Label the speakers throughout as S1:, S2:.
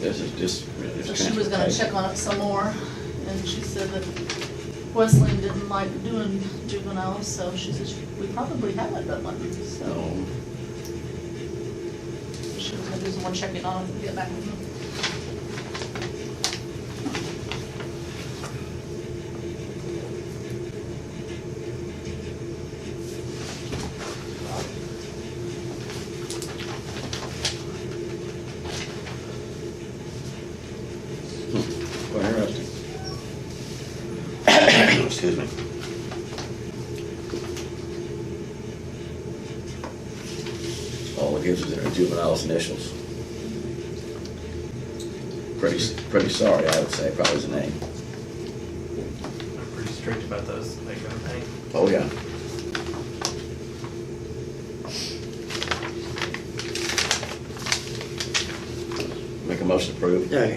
S1: This is just. it's
S2: So she was gonna
S1: transportation.
S2: check on it some more, and she said that Wesleyan didn't like doing juveniles, so she says we probably haven't done one, so
S1: No,
S2: she was gonna do some more checking on it and get back with me.
S1: quite interesting. Excuse me. All it gives is their juvenile's initials. Pretty, s- pretty sorry, I would say, probably is the name.
S3: They're pretty strict about those, like, kind of thing.
S1: Oh, yeah. Make a motion to approve.
S4: Okay.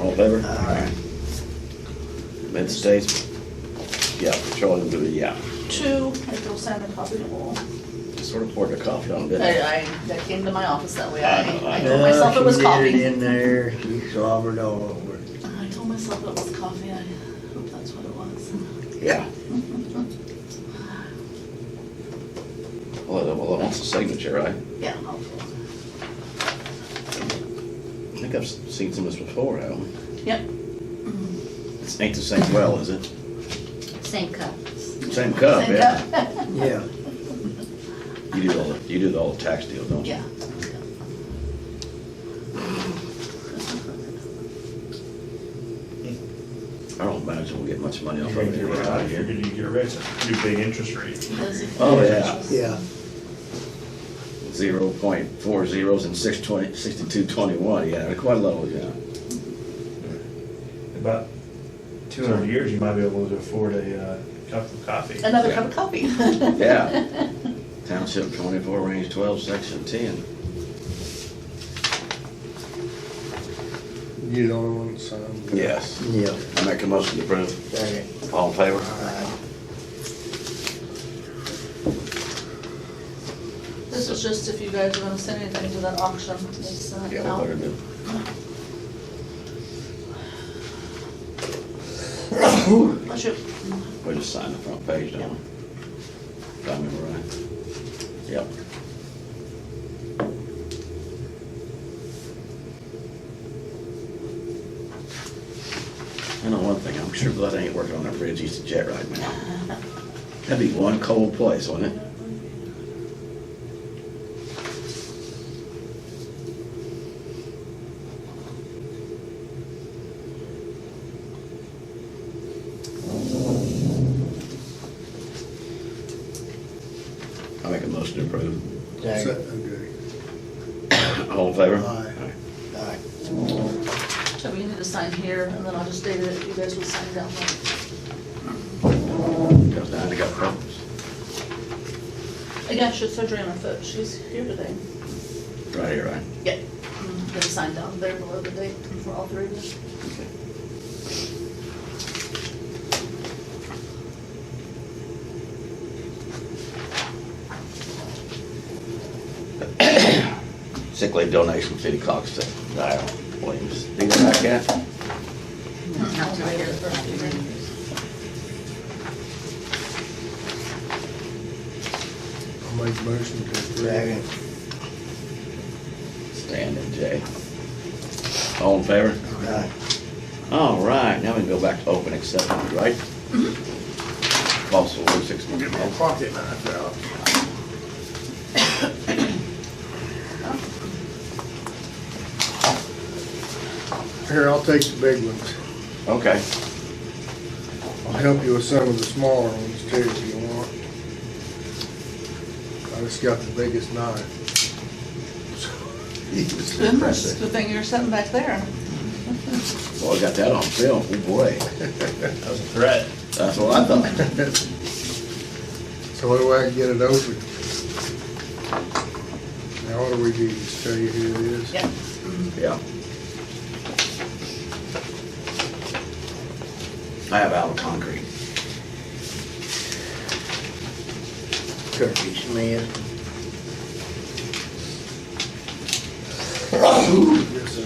S1: All in favor?
S4: All right.
S1: Mid states. Yeah, Charlie will do it, yeah.
S2: Two, I throw Sam a copy of the wall.
S1: Sort of poured their coffee on, didn't
S2: I,
S1: it?
S2: I, that came to my office that way,
S1: I know,
S2: I,
S1: I
S2: I
S1: know.
S2: told myself it was
S4: She did
S2: coffee.
S4: it in there, she slobbered all over it.
S2: I told myself it was coffee, I hope that's what it was.
S1: Yeah. Well, it- well, it wants a signature, right?
S2: Yeah, hopefully.
S1: I think I've seen some of this before, haven't
S2: Yep,
S1: I? It's ain't the same well, is it?
S5: Same cup.
S1: Same cup,
S2: Same
S1: yeah.
S2: cup.
S4: Yeah,
S1: You do all, the you do all the tax deal, don't you?
S2: Yeah.
S1: I don't imagine we'll get much money off
S6: You're
S1: of
S6: gonna
S1: it.
S6: get
S1: We're out of
S6: rich, you're
S1: here.
S6: gonna get rich, pretty big interest rate.
S1: Oh, yeah.
S4: yeah.
S1: Zero point four zeros and six twenty, sixty-two twenty-one, yeah, quite low, yeah.
S6: About two hundred years, you might be able to afford a uh, cup of coffee.
S2: Another cup of coffee.
S1: Yeah. Township twenty-four, range twelve, section ten.
S7: You the only one that signed.
S1: Yes.
S4: Yeah.
S1: I make a motion to approve.
S4: Okay.
S1: All in
S4: All
S1: favor?
S4: right.
S2: This is just if you guys are gonna send anything to that auction, it's, uh,
S1: Yeah, we better do.
S2: I should,
S1: We just sign the front page, don't we? If I remember right. Yep. I know one thing, I'm sure Bud ain't working on that bridge east of Jet right now. That'd be one cold place, wouldn't it? I make a motion to approve.
S4: Okay.
S7: So- Okay.
S1: All in favor?
S7: Aye.
S4: All right.
S2: Toby, you need to sign here, and then I'll just date it, you guys will sign down there.
S1: Goes down, I got problems.
S2: Again, she's surgery on her foot, she's here today.
S1: Right here, right?
S2: Yeah. Gonna sign down there below the date for all three of us.
S1: Okay. Sick leave donation from City Cox to Dial Williams. Do you got that yet?
S5: Not to
S2: Later.
S7: I'll make a motion to approve.
S4: Second.
S1: Stan and Jay. All in favor?
S4: All right.
S1: All right, now we can go back to open acceptance, right? Possible Route six
S7: Get my
S1: one.
S7: pocket knife out. Here, I'll take the big ones.
S1: Okay.
S7: I'll help you with some of the smaller ones too if you want. I just got the biggest knife.
S2: Goodness, good thing you're sitting back there.
S1: Well, I got that on film, oh boy.
S3: That was a threat.
S1: That's what I thought.
S7: So what do I get it open? Now what do we do, just tell you who it is?
S2: Yeah.
S1: Yeah. I have out of concrete.
S4: Kirby Smith.
S7: Yes,